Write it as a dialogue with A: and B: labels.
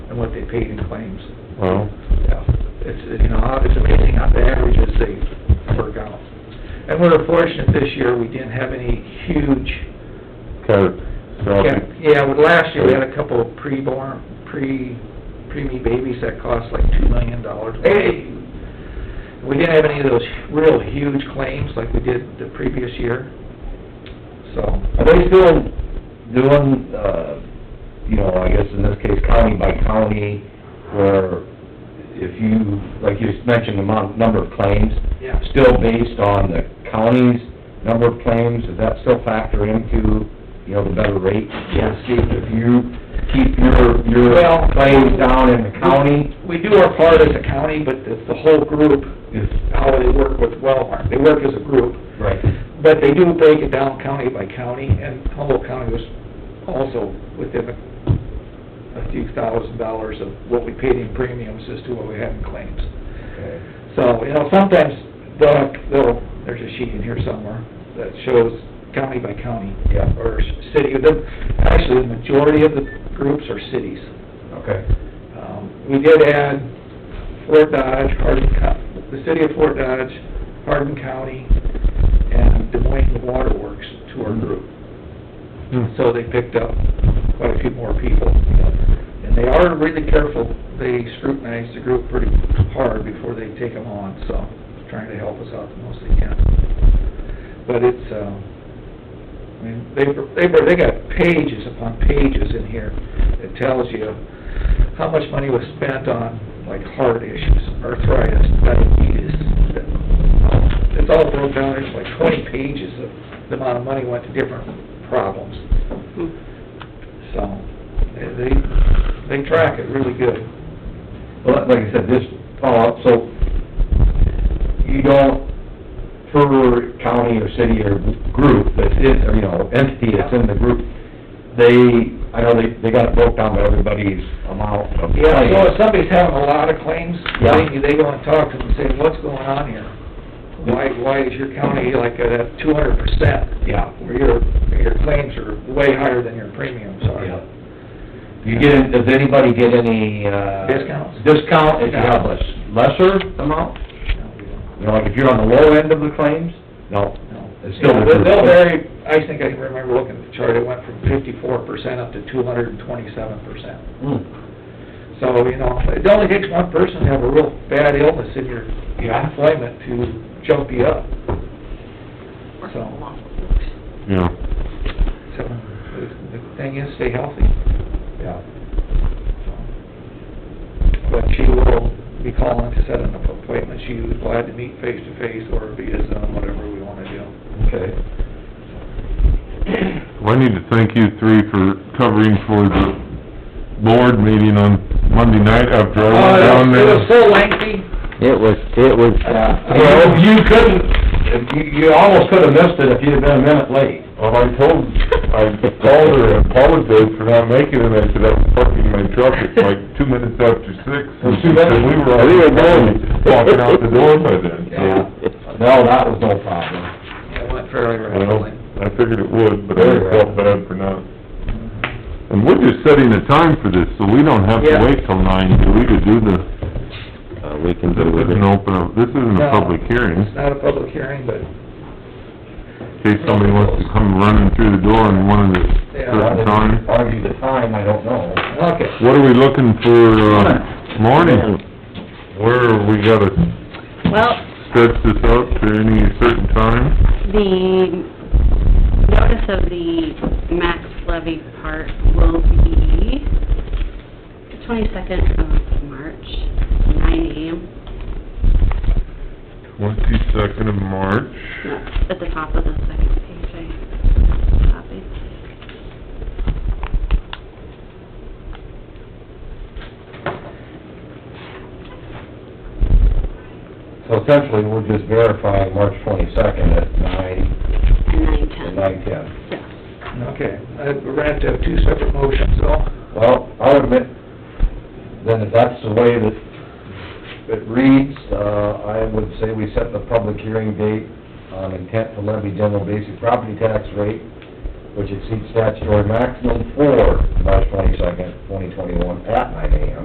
A: what they paid in claims.
B: Well,
A: Yeah, it's, you know, it's amazing how the averages they work out. And we're fortunate this year, we didn't have any huge,
B: cat,
A: yeah, yeah, with last year, we had a couple of preborn, pre, preemie babies that cost like two million dollars. Hey! We didn't have any of those real huge claims like we did the previous year, so.
C: Are they still doing, uh, you know, I guess in this case county by county, where if you, like you mentioned, the amount, number of claims,
A: Yeah.
C: still based on the county's number of claims, does that still factor into, you know, the better rate?
A: Yes.
C: See, If you keep your,
A: Well-
C: your claims down in the county,
A: We do our part as a county, but it's the whole group is how they work with Wellmark. They work as a group.
C: right,
A: But they do break it down county by county, and Humboldt County was also within a a few thousand dollars of what we paid in premiums as to what we had in claims.
C: okay.
A: So, you know, sometimes they'll, have- they'll, there's a sheet in here somewhere that shows county by county.
C: Yeah.
A: Or s- city, the, actually, the majority of the groups are cities.
C: okay,
A: Um, We did add Fort Dodge, Hardin, Co- the city of Fort Dodge, Hardin County, and Des Moines Water Works to our group. Hmm,
C: Mm-hmm.
A: So they picked up quite a few more people. And they are really careful, they scrutinize the group pretty hard before they take them on, so trying to help us out the most they can. But it's, um, I mean, they, they, they got pages upon pages in here that tells you how much money was spent on, like, heart issues, arthritis, diabetes. It's all broken down, there's like twenty pages of the amount of money went to different problems. So, they, they track it really good.
C: Well, like I said, this, follow up, so you don't, per county or city or group that's in, or, you know, entity that's in the group, they, I know they, they got it broke down by everybody's amount of
A: Yeah, so
C: claims.
A: if somebody's having a lot of claims, they, they go and talk to them and say, what's going on here? Why, why is your county like at two hundred percent?
C: Yeah.
A: Where your, your claims are way higher than your premiums
C: Yeah.
A: are.
C: You get, does anybody get any, uh...
A: Discounts?
C: Discount if you have a lesser amount?
A: No, we don't.
C: You know, like if you're on the low end of the claims? No.
A: No.
C: It's still
A: Yeah,
C: the
A: They'll they'll
C: group.
A: vary, I think I remember looking at the chart, it went from fifty-four percent up to two hundred and twenty-seven percent. So, you know, it only takes one person to have a real bad illness in your your
C: Yeah.
A: employment to jump you up. So,
B: Yeah,
A: so, the the thing is, stay healthy.
C: Yeah.
A: But she will be calling to set an appointment, she was glad to meet face to face or via Zoom, whatever we wanna do.
C: Okay.
B: well, I need to thank you three for covering for the board meeting on Monday night after I
A: Oh,
B: went down
A: It
B: there.
A: was so lengthy.
D: It was, it was,
C: Yeah, well, you couldn't, if you, you almost could've missed it if you'd have been a minute late.
B: Well, Oh, I told, I called her and apologized for not making it, and I said, I'm parking my truck at like two minutes after six.
C: Well,
B: And
C: too
B: she
C: bad.
B: said, we were
D: We were going."
B: already walking out the door by then,
C: Yeah.
B: so,
C: No, that was no problem.
A: Yeah, It went fairly
B: well,
A: rapidly.
B: I figured it would, but I felt bad for not. And we're just setting a time for this, so we don't have to
A: Yeah.
B: wait till nine, do we, to do the,
D: uh, we can
B: this
D: do with
B: isn't
D: it.
B: open, this isn't
A: No.
B: a public hearing.
A: It's not a public hearing, but,
B: In case somebody wants to come running through the door in one of the
A: Yeah.
B: certain time.
C: Argue the time, I don't know.
A: okay.
B: What are we looking for, uh, morning? Where we gotta
E: Well,
B: stretch this out to any certain time?
E: the notice of the max levy part will be the twenty-second of March, nine AM,
B: Twenty-second of March.
E: That's at the top of the second page, I copied.
C: So essentially, we're just verifying March twenty-second at nine, at
E: And nine ten.
C: nine ten.
E: Yeah.
A: Okay, Uh, we're gonna have to have two separate motions, though.
C: Well, I would admit, then if that's the way that it reads, uh, I would say we set the public hearing date on intent to levy general basic property tax rate, which exceeds statutory maximum for March twenty-second, twenty twenty-one, at nine AM.